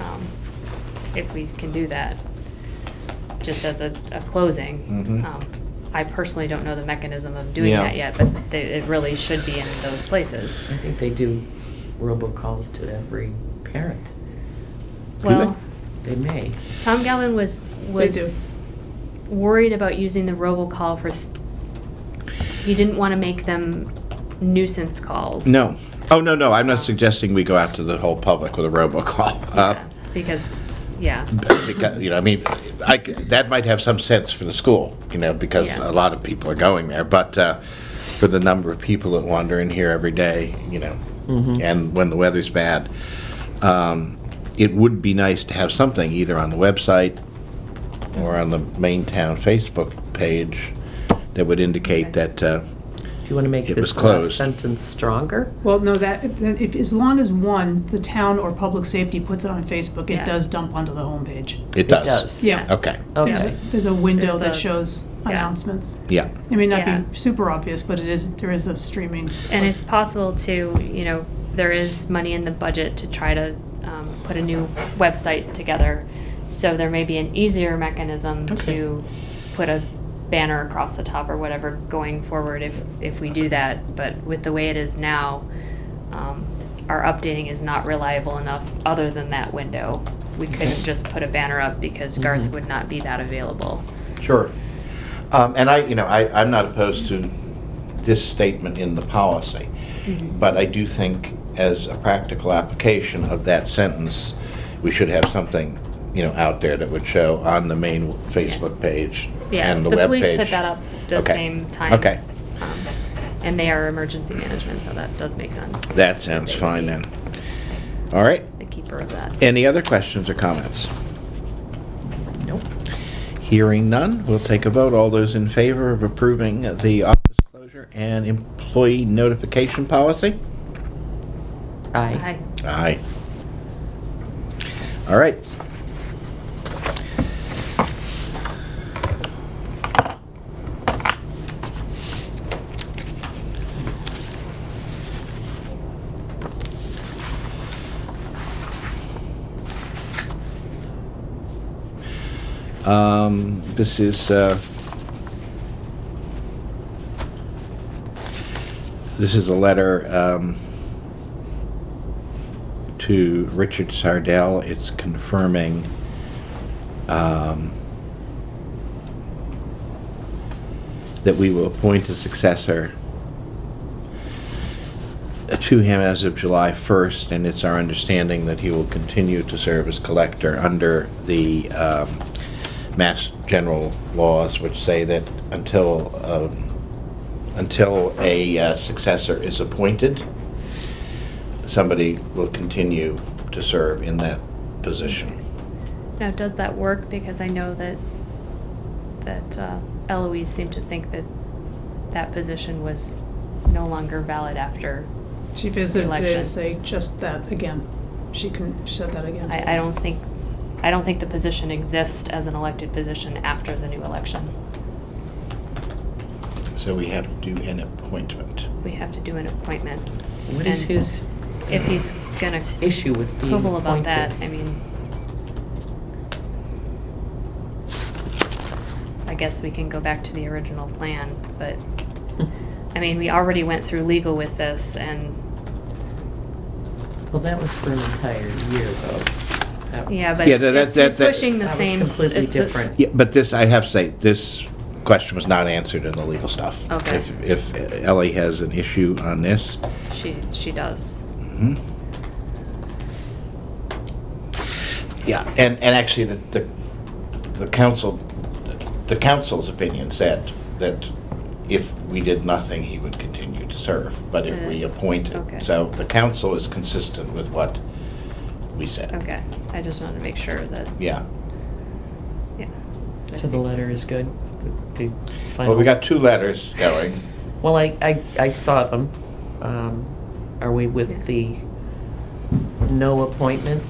um, if we can do that, just as a, a closing. Mhm. Um, I personally don't know the mechanism of doing Yeah. that yet, but they, it really should be in those places. Mm-hmm. I think they do robocalls to every parent. Do Well, They may. Tom Galvin was, was worried about using the robocall for, th- he didn't want to make them nuisance calls. No. Oh, no, no, I'm not suggesting we go out to the whole public with a robocall. Uh, Yeah, Because, yeah, because, You know, I mean, I c that might have some sense for the school, you know, because Yeah. a lot of people are going there. But uh, for the number of people that wander in here every day, you know, and when the weather's bad, um, it would be nice to have something either on the website or on the main town Facebook page that would indicate Okay. that, uh, Do you want to make It this was last closed. sentence stronger? Well, no, that, then if, as long as one, the town or public safety puts it on Facebook, Yeah. it does dump onto the homepage. it It does. does. Yeah. Okay, There's Okay. a- There's a window There's that a- shows yeah. announcements. yeah. It may Yeah. not be super obvious, but it is, there is a streaming. and it's possible to, you know, there is money in the budget to try to um, put a new website together. So there may be an easier mechanism Okay. to put a banner across the top or whatever going forward if, if we do that. But with the way it is now, um, our updating is not reliable enough other than that window. We couldn't just put a banner up because Garth Mhm. would not be that available. Sure. Um, And I, you know, I, I'm not opposed to this statement in the policy, Mm-hmm. but I do think as a practical application of that sentence, we should have something, you know, out there that would show on the main Facebook page Yeah, and the the webpage. police put that up the Okay. same time. Okay. Um, And they are emergency management, so that does make sense. That sounds They would fine be then. All right. The keeper of that. Any other questions or comments? Nope. Hearing none, we'll take a vote. All those in favor of approving the office closure and employee notification policy? Aye. Hi, Aye. All right. Um, This is, uh, this is a letter um, to Richard Sardell. It's confirming um, that we will appoint a successor to him as of July 1st, and it's our understanding that he will continue to serve as collector under the um, Mass General laws, which say that until, um, until a uh, successor is appointed, somebody will continue to serve in that position. now does that work? Because I know that, that uh, Eloise seemed to think that that position was no longer valid after. She visited today Election. to say just that again. She couldn't, she said that again. I, I don't think, I don't think the position exists as an elected position after the new election. So we have to do an appointment. We have to do an appointment. What is And his If he's gonna issue with being quibble about appointed? that, I mean. I guess we can go back to the original plan, but, I mean, we already went through legal with this and, Well, that was for an entire year, though. That- yeah, but Yeah, that- that- it's it's that- that- pushing the That was same. completely it's the- different. Yeah, but this, I have to say, this question was not answered in the legal stuff. Okay. If if Ellie has an issue on this. She, she does. mhm. Yeah, and, and actually, the, the the council, the council's opinion said that if we did nothing, he would continue to serve, but if we Uh, appointed. okay. So the council is consistent with what we said. Okay, I just wanted to make sure that, Yeah. yeah. I So think the this letter is good? The- the Well, we final- got two letters going. Well, I, I, I saw them. Um, Are we with the no appointment